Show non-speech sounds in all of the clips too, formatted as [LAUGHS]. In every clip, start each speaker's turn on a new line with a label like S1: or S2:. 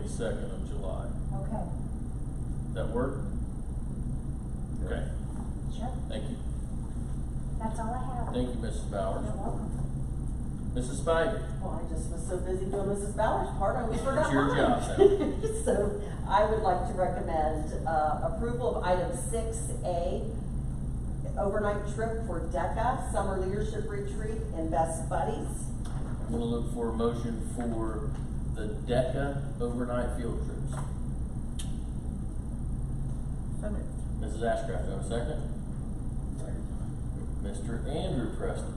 S1: twenty-second of July.
S2: Okay,
S1: That work? Okay,
S2: sure,
S1: thank you.
S2: that's all I have.
S1: Thank you, Mrs. Bowers.
S2: You're welcome.
S1: Mrs. Spivey?
S3: Well, I just was so busy doing Mrs. Ballard's part, I always forgot
S1: It's your
S3: mine.
S1: job
S3: [LAUGHS] So I would like to recommend, uh, approval of item six A, overnight trip for DECA, summer leadership retreat and best buddies.
S1: I'm gonna look for a motion for the DECA overnight field trips. Mrs. Ashcraft, do I have a second? Mr. Andrew Preston.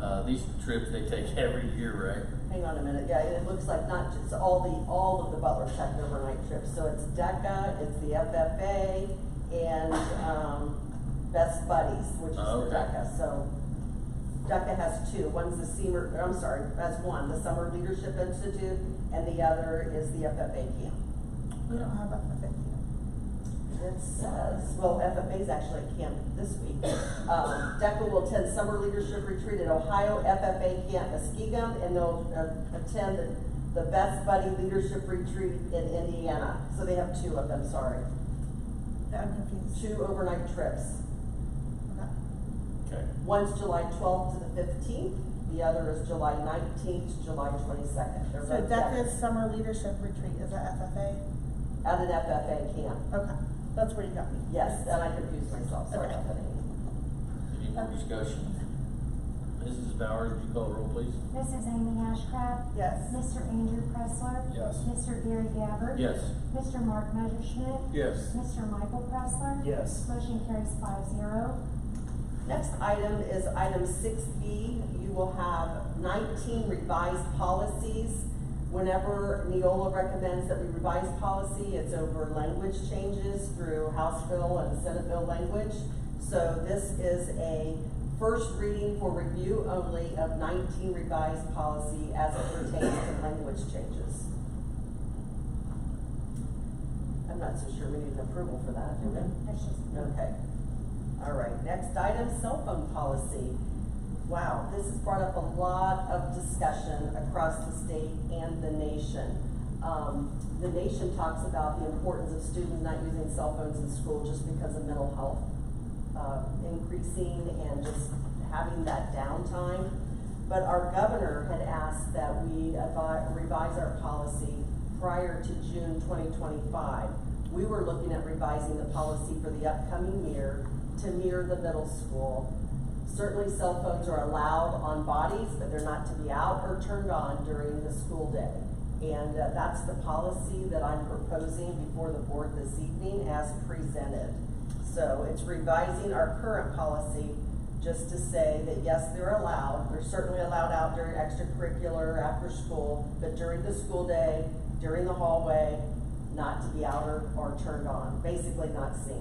S1: Uh, these trips they take [LAUGHS] every year, right?
S3: Hang on a minute, yeah, it looks like not just all the, all of the Butler Tech overnight trips, so it's DECA, it's the FFA, and, um, Best Buddies, which is
S1: Oh,
S3: the
S1: okay.
S3: DECA, so. DECA has two, one's the senior, I'm sorry, has one, the Summer Leadership Institute, and the other is the FFA camp.
S4: We don't have FFA camp.
S3: It says, well, FFA is actually at camp this week. Um, DECA will attend summer leadership retreat at Ohio FFA Camp Muskegum, and they'll uh, attend the- the Best Buddy Leadership Retreat in Indiana. So they have two of them, sorry.
S4: I'm confused.
S3: Two overnight trips.
S4: Okay.
S1: Okay.
S3: One's July twelfth to the fifteenth, the other is July nineteenth to July twenty-second. They're
S4: So
S3: both
S4: DECA's summer leadership retreat is at FFA?
S3: At an FFA camp.
S4: Okay, that's where you got me.
S3: Yes, and I confused myself, sorry about that.
S1: Any more discussion? Mrs. Bowers, would you call the roll, please?
S2: Mrs. Amy Ashcraft?
S4: Yes.
S2: Mr. Andrew Pressler?
S5: Yes.
S2: Mr. Gary Gabbard?
S1: Yes.
S2: Mr. Mark Messerschmidt?
S5: Yes.
S2: Mr. Michael Pressler?
S5: Yes.
S2: Motion carries five zero.
S3: Next item is item six B. You will have nineteen revised policies. Whenever Neola recommends that we revise policy, it's over language changes through House bill and Senate bill language. So this is a first reading for review only of nineteen revised policy as it pertains to language changes. I'm not so sure we need an approval for that, do we?
S2: That's just.
S3: Okay. All right, next item, cell phone policy. Wow, this has brought up a lot of discussion across the state and the nation. Um, the nation talks about the importance of students not using cell phones in school just because of mental health, uh, increasing and just having that downtime. But our governor had asked that we avi- revise our policy prior to June twenty twenty-five. We were looking at revising the policy for the upcoming year to mirror the middle school. Certainly cell phones are allowed on bodies, but they're not to be out or turned on during the school day. And uh, that's the policy that I'm proposing before the board this evening as presented. So it's revising our current policy just to say that yes, they're allowed, they're certainly allowed out during extracurricular, after school, but during the school day, during the hallway, not to be out or, or turned on, basically not seen.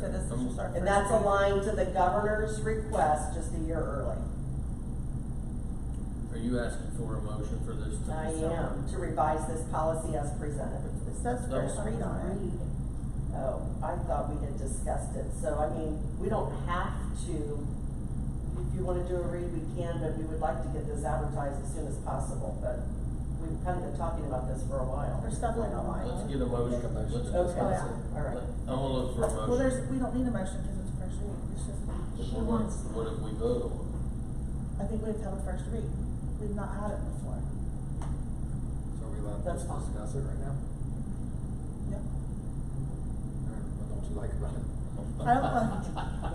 S4: So this is just our first.
S3: Um, And that's
S4: reading.
S3: aligned to the governor's request just a year early.
S1: Are you asking for a motion for this? to-
S3: I am to revise this policy as presented.
S4: It says
S1: No.
S4: first read on
S3: Oh, I thought we had discussed it, so I mean, we don't have to, if you wanna do a read, we can, but we would like to get this advertised as soon as possible, but we've kinda been talking about this for a
S4: it. We're
S3: while.
S4: stumbling on line.
S1: Let's get a
S5: Oh,
S1: motion. Let's discuss
S3: Okay,
S1: it.
S3: all right.
S1: I'm gonna look for a motion.
S4: Well, there's, we don't need a motion because it's first read. It's just,
S2: She
S1: What-
S2: wants,
S1: What if we vote on it?
S4: I think we have to have a first read. We've not had it before.
S5: So are we allowed to
S3: That's fine.
S5: discuss it right now?
S4: Yep.
S5: Or What don't you like about it?
S4: I don't like,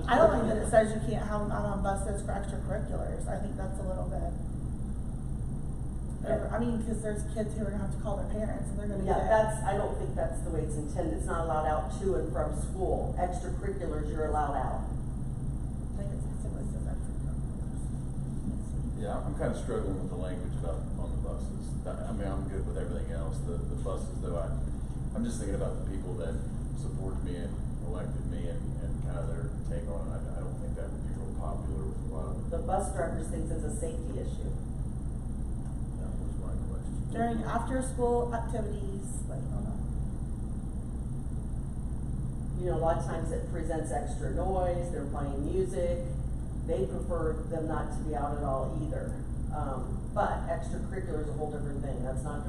S4: I don't like that it says you can't have them out on buses for extracurriculars, I think that's a little bit. over- I mean, cause there's kids who are gonna have to call their parents and they're gonna get.
S3: Yeah, that's, I don't think that's the way it's intended, it's not allowed out to and from school, extracurriculars, you're allowed out.
S4: I think it's specifically says extracurriculars.
S6: Yeah, I'm kind of struggling with the language about on the buses. I I mean, I'm good with everything else, the, the buses though, I, I'm just thinking about the people that supported me and elected me and, and kind of their take on it. I, I don't think that would be real popular with a lot of.
S3: The bus drivers thinks it's a safety issue.
S1: That was my question.
S4: During after-school activities, like, I don't know.
S3: You know, a lot of times it presents extra noise, they're playing music, they prefer them not to be out at all either. Um, but extracurricular is a whole different thing, that's not